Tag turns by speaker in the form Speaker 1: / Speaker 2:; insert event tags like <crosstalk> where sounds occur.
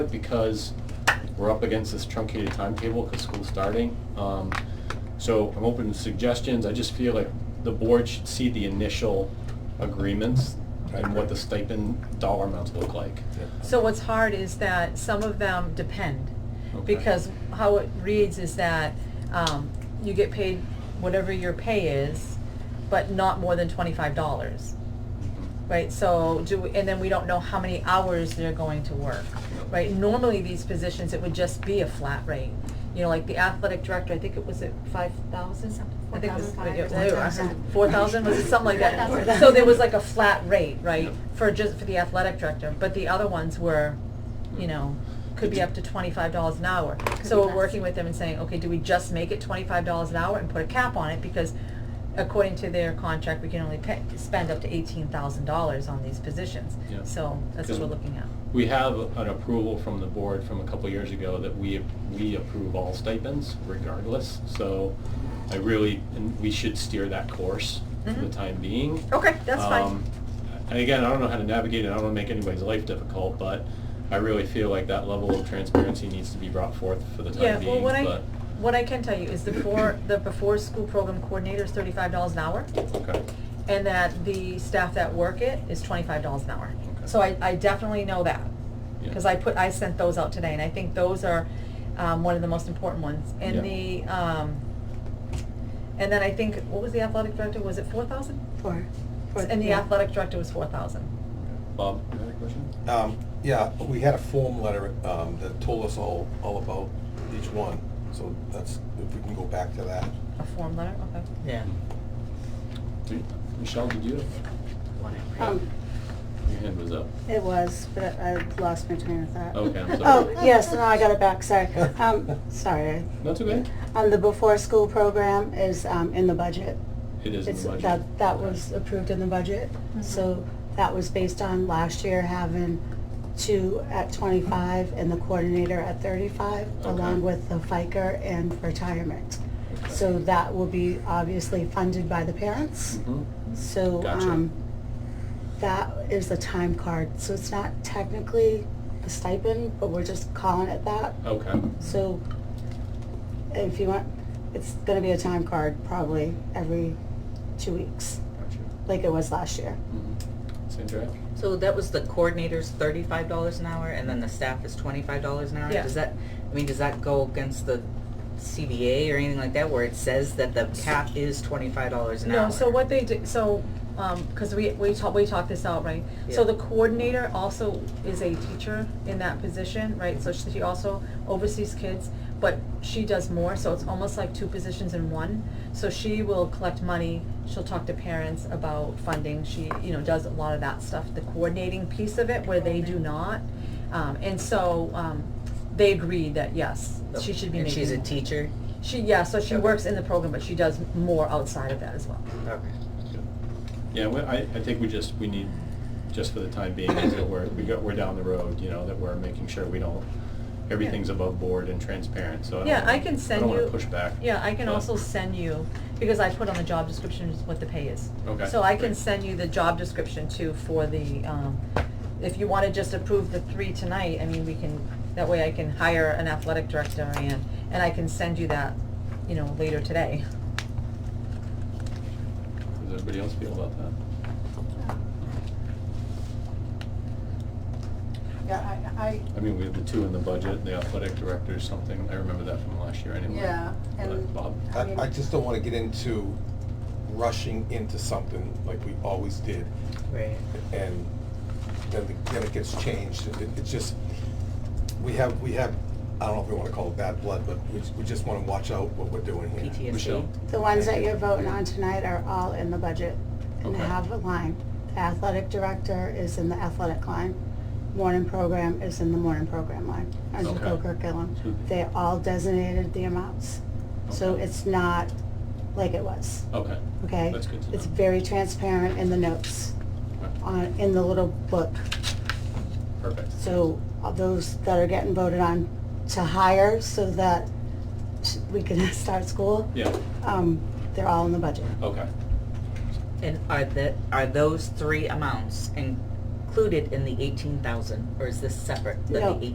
Speaker 1: because we're up against this truncated timetable because school's starting. Um, So I'm open to suggestions. I just feel like the board should see the initial agreements and what the stipend dollar amounts look like.
Speaker 2: So what's hard is that some of them depend,
Speaker 1: Okay.
Speaker 2: because how it reads is that, um, you get paid whatever your pay is, but not more than twenty-five dollars, right? So do, we- and then we don't know how many hours they're going to work, right? Normally, these positions, it would just be a flat rate, you know, like the athletic director, I think it was at five thousand?
Speaker 3: Something,
Speaker 2: I think it was, uh,
Speaker 3: 4,500,
Speaker 2: four thousand, was it something like that?
Speaker 3: 4,000.
Speaker 2: So there was like a flat rate, right,
Speaker 1: Yep.
Speaker 2: for just, for the athletic director, but the other ones were, you know, could be up to twenty-five dollars an hour.
Speaker 3: Could
Speaker 2: So
Speaker 3: be
Speaker 2: we're
Speaker 3: less.
Speaker 2: working with them and saying, okay, do we just make it twenty-five dollars an hour and put a cap on it? Because according to their contract, we can only pay, spend up to eighteen thousand dollars on these positions.
Speaker 1: Yeah.
Speaker 2: So that's what we're looking at.
Speaker 1: We have an approval from the board from a couple years ago that we, we approve all stipends regardless. So I really, and we should steer that course for the
Speaker 2: Mhm.
Speaker 1: time being.
Speaker 2: Okay, that's fine.
Speaker 1: Um, And again, I don't know how to navigate it, I don't wanna make anybody's life difficult, but I really feel like that level of transparency needs to be brought forth for the
Speaker 2: Yeah,
Speaker 1: time
Speaker 2: well,
Speaker 1: being,
Speaker 2: what I,
Speaker 1: but,
Speaker 2: what I can tell you is the before, the before-school program coordinator is thirty-five dollars an hour.
Speaker 1: okay,
Speaker 2: and that the staff that work it is twenty-five dollars an hour.
Speaker 1: Okay.
Speaker 2: So I, I definitely know that,
Speaker 1: Yeah.
Speaker 2: because I put, I sent those out today, and I think those are, um, one of the most important ones. And the,
Speaker 1: Yeah.
Speaker 2: um, and then I think, what was the athletic director, was it four thousand?
Speaker 3: For, for.
Speaker 2: And the athletic director was four thousand.
Speaker 1: Bob, you have a question?
Speaker 4: Um, yeah, but we had a form letter, um, that told us all, all about each one, so that's, if we can go back to that.
Speaker 2: A form letter, okay.
Speaker 5: Yeah.
Speaker 1: Do- Michelle, did you,
Speaker 5: one in red.
Speaker 3: Um,
Speaker 1: your hand was up,
Speaker 3: it was, but I lost my train of thought.
Speaker 1: Okay, I'm sorry.
Speaker 3: Oh, yes, no, I got it back, sorry. Um, sorry.
Speaker 1: that's okay,
Speaker 3: Um, the before-school program is, um, in the budget.
Speaker 1: it is in
Speaker 3: It's,
Speaker 1: the budget.
Speaker 3: that, that was approved in the budget, so that was based on last year having two at twenty-five and the coordinator at thirty-five,
Speaker 1: Okay.
Speaker 3: along with the FICA and retirement.
Speaker 1: Okay.
Speaker 3: So that will be obviously funded by the parents.
Speaker 1: Mhm.
Speaker 3: So,
Speaker 1: Gotcha.
Speaker 3: um, that is a time card, so it's not technically a stipend, but we're just calling it that.
Speaker 1: Okay,
Speaker 3: So, if you want, it's gonna be a time card probably every two weeks,
Speaker 1: gotcha.
Speaker 3: like it was last year.
Speaker 1: Mhm. Sandra?
Speaker 5: So that was the coordinators thirty-five dollars an hour and then the staff is twenty-five dollars an hour?
Speaker 2: Yeah.
Speaker 5: Does that, I mean, does that go against the CBA or anything like that where it says that the cap is twenty-five dollars an hour?
Speaker 2: No, so what they do, so, um, cause we, we talked, we talked this out, right? So
Speaker 5: Yeah.
Speaker 2: the coordinator also is a teacher in that position, right? So she also oversees kids, but she does more, so it's almost like two positions in one. So she will collect money, she'll talk to parents about funding, she, you know, does a lot of that stuff, the coordinating piece of it where they do not. Um, and so, um, they agreed that yes, she should be
Speaker 5: Oh, And
Speaker 2: making.
Speaker 5: she's a teacher?
Speaker 2: She, yeah, so she
Speaker 5: Okay.
Speaker 2: works in the program, but she does more outside of that as well.
Speaker 5: Okay.
Speaker 1: Yeah, well, I, I think we just, we need, just for the time being, is that we're, we got, we're down the road, you know, that we're making sure we don't, everything's above board and transparent, so I don't
Speaker 2: Yeah, I
Speaker 1: wanna-
Speaker 2: can send
Speaker 1: I don't
Speaker 2: you-
Speaker 1: wanna push back.
Speaker 2: Yeah, I can
Speaker 1: but-
Speaker 2: also send you, because I put on the job description is what the pay is.
Speaker 1: Okay,
Speaker 2: So I can
Speaker 1: great.
Speaker 2: send you the job description too for the, um, if you wanna just approve the three tonight, I mean, we can, that way I can hire an athletic director and, and I can send you that, you know, later today.
Speaker 1: Does everybody else feel about that?
Speaker 6: Yeah, I, I,
Speaker 1: I mean, we have the two in the budget, the athletic director is something, I remember that from last year anyway.
Speaker 6: Yeah,
Speaker 1: But
Speaker 6: and-
Speaker 1: Bob,
Speaker 4: I, I just don't wanna get into rushing into something like we always did,
Speaker 5: Right.
Speaker 4: and then, the- then it gets changed, It- it- it's just, we have, we have, I don't know if we wanna call it bad blood, but we, we just wanna watch out what we're doing here.
Speaker 5: PTSD?
Speaker 1: Michelle?
Speaker 3: The ones that you're voting on tonight are all in the budget and
Speaker 1: Okay.
Speaker 3: have a line. The Athletic director is in the athletic line. Morning program is in the morning program line, under
Speaker 1: Okay.
Speaker 3: Bill Kirkgillum.
Speaker 1: So-
Speaker 3: They all designated the amounts. So
Speaker 1: Okay.
Speaker 3: it's not like it was,
Speaker 1: Okay,
Speaker 3: okay?
Speaker 1: That's good to
Speaker 3: It's
Speaker 1: know.
Speaker 3: very transparent in the notes,
Speaker 1: okay,
Speaker 3: on, in the little book.
Speaker 1: perfect.
Speaker 3: So of those that are getting voted on to hire so that we can <laughs> start school,
Speaker 1: Yeah,
Speaker 3: um, they're all in the budget.
Speaker 1: okay,
Speaker 5: And are that, are those three amounts included in the eighteen thousand or is this separate than
Speaker 3: No.
Speaker 5: the eighteen?